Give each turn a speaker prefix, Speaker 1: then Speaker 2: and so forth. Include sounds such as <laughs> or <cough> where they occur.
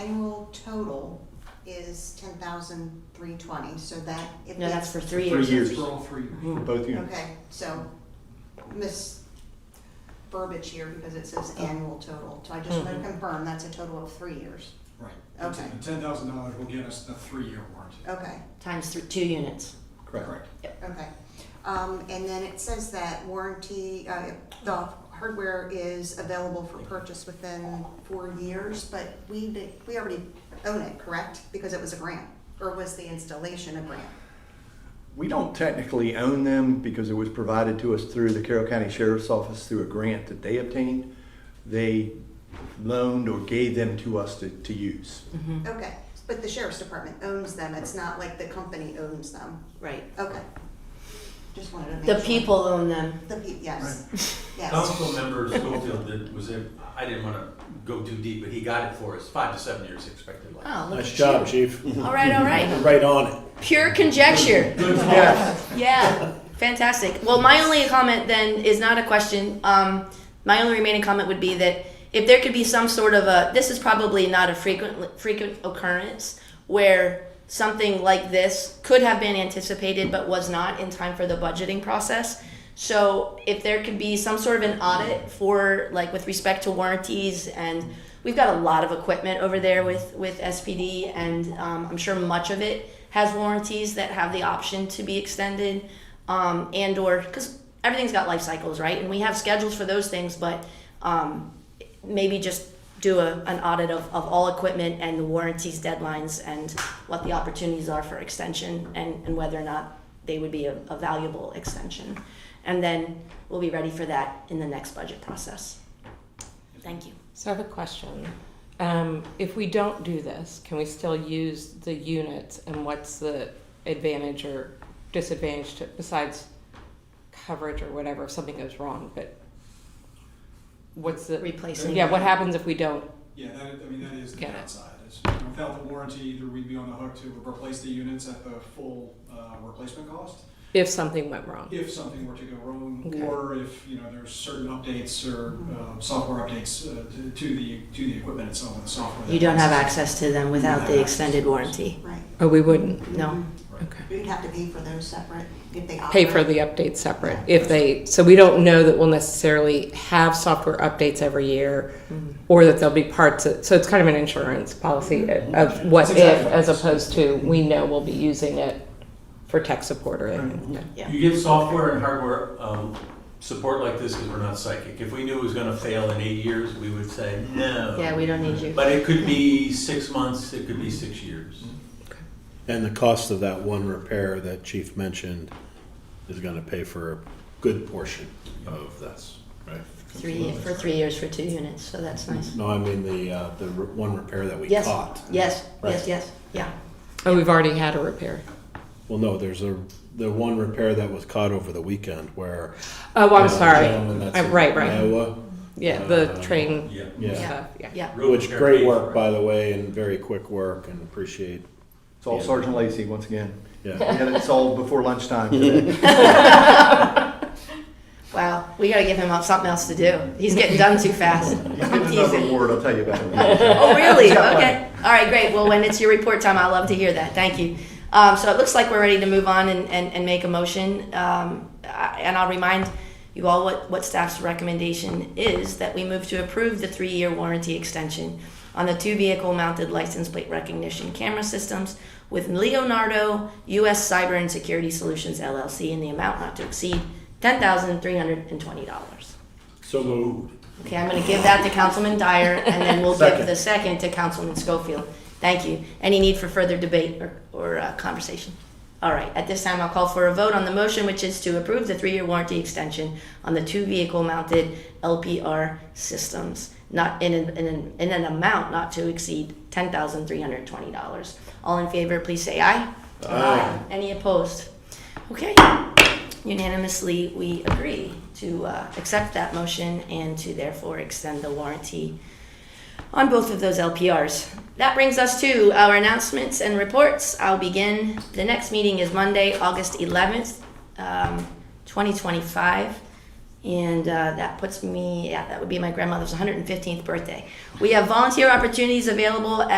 Speaker 1: annual total is ten thousand three twenty, so that if
Speaker 2: No,
Speaker 1: it's,
Speaker 2: that's for three
Speaker 3: Three
Speaker 2: years.
Speaker 3: years.
Speaker 4: For all three years.
Speaker 3: For both units.
Speaker 1: okay, so miss verbiage here because it says
Speaker 2: Oh.
Speaker 1: annual total, so I just wanna
Speaker 2: Mhm.
Speaker 1: confirm that's a total of three years,
Speaker 2: Mm-hmm.
Speaker 4: Right.
Speaker 1: Okay.
Speaker 4: The ten thousand dollars will get us the three-year warranty.
Speaker 1: okay.
Speaker 2: Times thr- two units.
Speaker 3: Correct.
Speaker 1: Okay, um, and then it says that warranty, uh, the hardware is available for purchase within four years, but we, did- we already own it, correct? Because it was a grant, or was the installation a grant?
Speaker 3: We don't technically own them because it was provided to us through the Carroll County Sheriff's Office through a grant that they obtained. They loaned or gave them to us to, to use.
Speaker 1: Okay, but the sheriff's department owns them, it's not like the company owns them,
Speaker 2: Right.
Speaker 1: okay. Just wanted to make sure.
Speaker 2: The people own them.
Speaker 1: The people, yes, yes,
Speaker 5: Council member Schofield did, was it, I didn't wanna go too deep, but he got it for us, five to seven years expected life.
Speaker 2: Oh, look
Speaker 6: Nice
Speaker 2: at
Speaker 6: job,
Speaker 2: you.
Speaker 6: Chief.
Speaker 2: All right, all
Speaker 6: <laughs>
Speaker 2: right.
Speaker 6: Right on it.
Speaker 2: Pure conjecture.
Speaker 3: Yeah.
Speaker 2: Yeah, fantastic. Well, my only comment then is not a question. Um, my only remaining comment would be that if there could be some sort of a, this is probably not a frequent frequent occurrence where something like this could have been anticipated but was not in time for the budgeting process. So if there could be some sort of an audit for like with respect to warranties and we've got a lot of equipment over there with with SPD and um, I'm sure much of it has warranties that have the option to be extended um, and or because everything's got life cycles right and we have schedules for those things but um, maybe just do a, an audit of, of all equipment and the warranties deadlines and what the opportunities are for extension and, and whether or not they would be a, a valuable extension and then we'll be ready for that in the next budget process thank you
Speaker 7: So I have a question. Um, if we don't do this, can we still use the units and what's the advantage or disadvantage to, besides coverage or whatever, if something goes wrong, but what's the,
Speaker 2: replacing
Speaker 7: yeah, what happens if we don't?
Speaker 4: Yeah, that, I mean, that is the
Speaker 7: Get it.
Speaker 4: downside. Is without the warranty, either we'd be on the hook to replace the units at the full, uh, replacement cost
Speaker 7: If something went wrong?
Speaker 4: if something were to go wrong,
Speaker 7: Okay.
Speaker 4: or if, you know, there's certain updates or,
Speaker 2: Mm-hmm.
Speaker 4: uh, software updates, uh, to, to the, to the equipment itself and the software. that
Speaker 2: you don't have
Speaker 4: runs.
Speaker 2: access to them without the extended warranty
Speaker 1: right.
Speaker 7: Or Oh, we wouldn't?
Speaker 2: no
Speaker 7: Okay.
Speaker 1: We'd have to pay for those separate, if they operate.
Speaker 7: Pay for the updates separate if they, so we don't know that we'll necessarily have software updates every year
Speaker 4: Mm-hmm.
Speaker 7: or that there'll be parts, of- so it's kind of an insurance policy of what
Speaker 4: Mm-hmm. That's
Speaker 7: if
Speaker 4: exactly
Speaker 7: as
Speaker 4: what it is.
Speaker 7: opposed to we know we'll be using it for tech support or anything.
Speaker 2: Yeah.
Speaker 5: You give software and hardware, um, support like this, cause we're not psychic. If we knew it was gonna fail in eight years, we would say, no.
Speaker 2: yeah we don't need you
Speaker 5: But it could be six months, it could be six years.
Speaker 6: Mm-hmm. And the cost of that one repair that Chief mentioned is gonna pay for a good portion of this, right?
Speaker 2: three for three years for two units so that's nice
Speaker 6: No, I mean the, uh, the re- one repair that we
Speaker 2: Yes.
Speaker 6: caught.
Speaker 2: Yes,
Speaker 6: Right.
Speaker 2: yes, yes, yeah.
Speaker 7: Oh, we've already had a repair.
Speaker 6: Well, no, there's a, the one repair that was caught over the weekend where.
Speaker 7: Oh, I'm
Speaker 6: uh,
Speaker 7: sorry.
Speaker 6: gentleman that's
Speaker 7: Uh,
Speaker 6: in
Speaker 7: right, right.
Speaker 6: Iowa,
Speaker 7: Yeah, the
Speaker 6: Uh,
Speaker 7: train
Speaker 5: Yeah.
Speaker 6: Yeah,
Speaker 7: stuff, yeah.
Speaker 2: Yeah.
Speaker 5: Road
Speaker 6: which
Speaker 5: repair
Speaker 6: great
Speaker 5: paid
Speaker 6: work,
Speaker 5: for it.
Speaker 6: by the way, and very quick work and appreciate,
Speaker 3: It's all Sergeant Lacy once again.
Speaker 6: yeah.
Speaker 3: And it's all before lunchtime
Speaker 6: <laughs>
Speaker 3: today.
Speaker 2: Wow, we gotta give him something else to do. He's getting done too fast.
Speaker 3: He's
Speaker 2: I'm
Speaker 3: getting another
Speaker 2: teasing.
Speaker 3: award, I'll tell you
Speaker 6: <laughs>
Speaker 3: about it.
Speaker 2: <laughs> Oh, really?
Speaker 3: He's got
Speaker 2: Okay. All right, great. Well, when it's your report time, I love to hear that. Thank you. Um, so it looks like we're ready to move on and, and, and make a motion. Um, I- and I'll remind you all what, what staff's recommendation is that we move to approve the three-year warranty extension on the two vehicle mounted license plate recognition camera systems with Leonardo US Cyber and Security Solutions LLC in the amount not to exceed $10,320.
Speaker 6: So moved.
Speaker 2: Okay, I'm gonna give that to Councilman Dyer, and then we'll give
Speaker 6: Second.
Speaker 2: the second to Councilman Schofield. Thank you. Any need for further debate or, or uh, conversation? All right, at this time, I'll call for a vote on the motion, which is to approve the three-year warranty extension on the two vehicle-mounted LPR systems, not in an, in an, in an amount not to exceed ten thousand three hundred twenty dollars. All in favor, please say aye. Aye. Any opposed? Okay, Unanimously, we agree to uh, accept that motion and to therefore extend the warranty on both of those LPRs. That brings us to our announcements and reports. I'll begin. The next meeting is Monday, August 11th, um, 2025. And uh, that puts me, yeah, that would be my grandmother's 115th birthday. We have volunteer opportunities available at